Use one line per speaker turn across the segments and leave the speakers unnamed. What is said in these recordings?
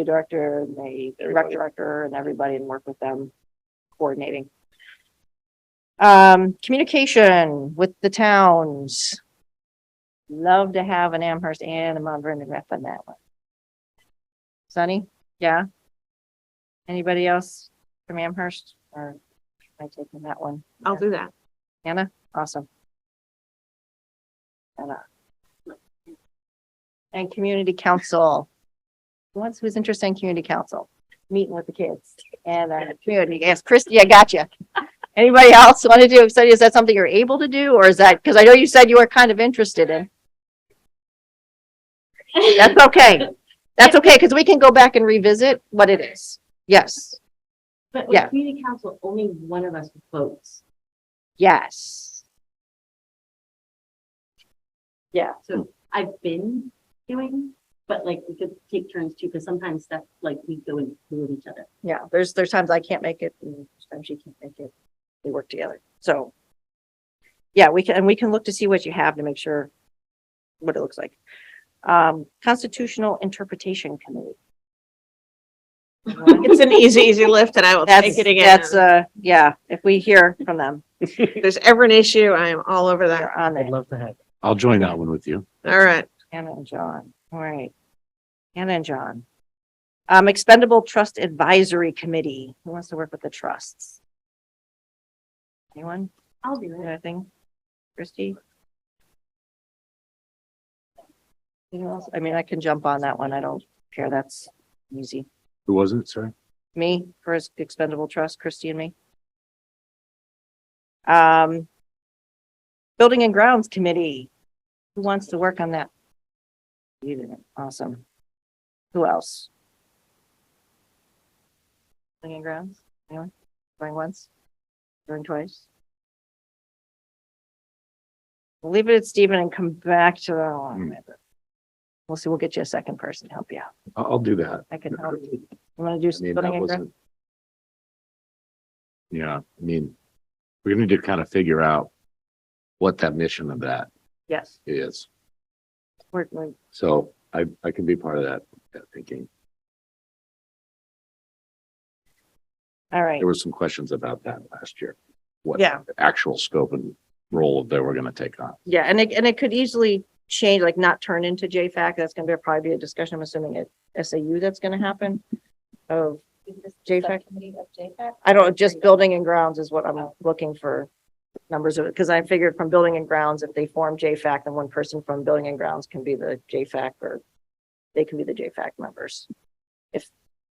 the director and the rec
Everybody.
director and everybody and work with them coordinating. Um, communication with the towns. Love to have an Amherst and a Mount Vernon rep on that one. Sunny, yeah? Anybody else from Amherst or am I taking that one?
I'll do that.
Anna, awesome. Anna. And community council. Once who's interested in community council, meeting with the kids and uh community. Yes, Christie, I got you. Anybody else want to do, so is that something you're able to do or is that, because I know you said you were kind of interested in? That's okay. That's okay, because we can go back and revisit what it is. Yes,
But
Yeah.
with community council, only one of us votes.
yes.
So I've been doing, but like we could take turns too, because sometimes stuff, like we go and do with each other.
yeah, there's, there's times I can't make it, and times she can't make it. We work together, so. Yeah, we can, and we can look to see what you have to make sure what it looks like. Um, Constitutional Interpretation Committee.
It's an easy, easy lift and I will
That's,
take it again.
that's, uh, yeah, if we hear from them,
If there's ever an issue, I am all over that.
they're on
I'd
it,
love to have.
I'll join that one with you.
All right.
Hannah and John, all right. Hannah and John. Um, Expendable Trust Advisory Committee, who wants to work with the trusts? Anyone?
I'll do it.
Anything? Christie? Anyone else? I mean, I can jump on that one. I don't care. That's easy.
Who wasn't it? Sorry.
Me for his expendable trust, Christie and me. Um, Building and Grounds Committee. Who wants to work on that? You didn't. Awesome. Who else? Building and Grounds? Anyone? Going once? Going twice? We'll Leave it at Stephen and come back to that one.
Hmm.
We'll see. We'll get you a second person to help you out.
I'll, I'll do that.
I can help you. You want to
I
do
mean, that
Building and Grounds?
wasn't. Yeah, I mean, we're gonna need to kind of figure out what that mission of that
Yes.
is.
We're, we're-
So I, I can be part of that, that thinking.
all right.
There were some questions about that last year. What
Yeah.
the actual scope and role that we're gonna take on.
Yeah, and it, and it could easily change, like not turn into JFAC. That's gonna be, probably be a discussion, I'm assuming at SAU that's gonna happen. Oh, Of, JFAC?
Subcommittee of JFAC?
I don't, just building and grounds is what I'm looking for numbers of, because I figured from building and grounds, if they form JFAC, then one person from building and grounds can be the JFAC or they can be the JFAC members. If,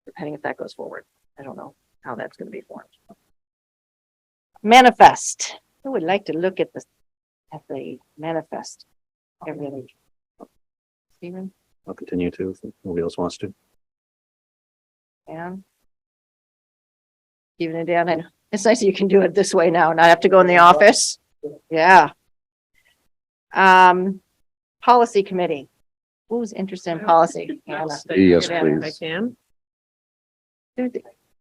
depending if that goes forward. I don't know how that's gonna be formed. Manifest. Who would like to look at the, at the manifest? every other week. Steven,
I'll continue to, if nobody else wants to.
Dan? Steven and Dan, and it's nice that you can do it this way now, not have to go in the office. Yeah. Um, policy committee. Who's interested in policy?
I'll
Hannah.
stick
Yes,
it in If
please.
I can.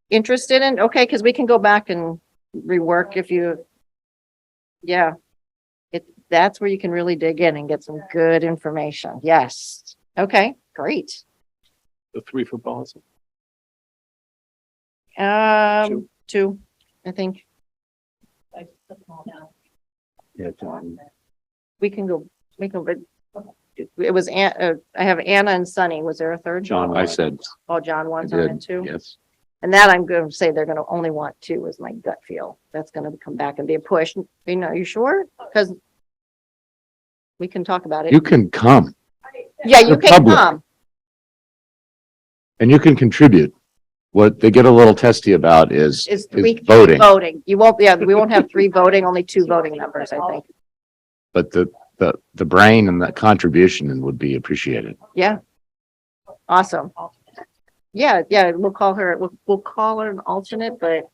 Interested in, okay, because we can go back and rework if you, yeah. It, that's where you can really dig in and get some good information. Yes. Okay, great.
The three for policy.
Um, two, I think.
I just put them all down.
Yeah, John.
we can go, we can, but it was, An- uh, I have Anna and Sunny. Was there a third?
John,
I said,
Oh, John wants
I
on
did,
it too.
yes,
And that I'm going to say they're going to only want two is my gut feel. That's going to come back and be a push. You know, you sure? Because we can talk about
you
it.
can come
Yeah, you
the
can
public.
come.
and you can contribute. What they get a little testy about is,
It's
is
three
voting.
voting. You won't, yeah, we won't have three voting, only two voting numbers, I think.
but the, the, the brain and the contribution would be appreciated.
Yeah. Awesome. Yeah, yeah, we'll call her, we'll, we'll call her an alternate, but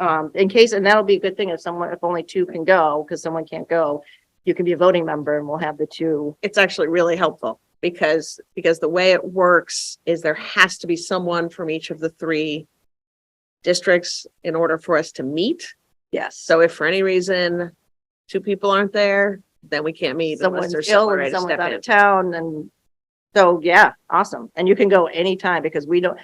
um, in case, and that'll be a good thing if someone, if only two can go, because someone can't go, you can be a voting member and we'll have the two.
it's actually really helpful because, because the way it works is there has to be someone from each of the three districts in order for us to meet. Yes. So if for any reason two people aren't there, then we can't meet unless
Someone's
there's
ill
someone ready
and
to
someone's
step
out
in.
of town and so, yeah, awesome. And you can go anytime because we don't,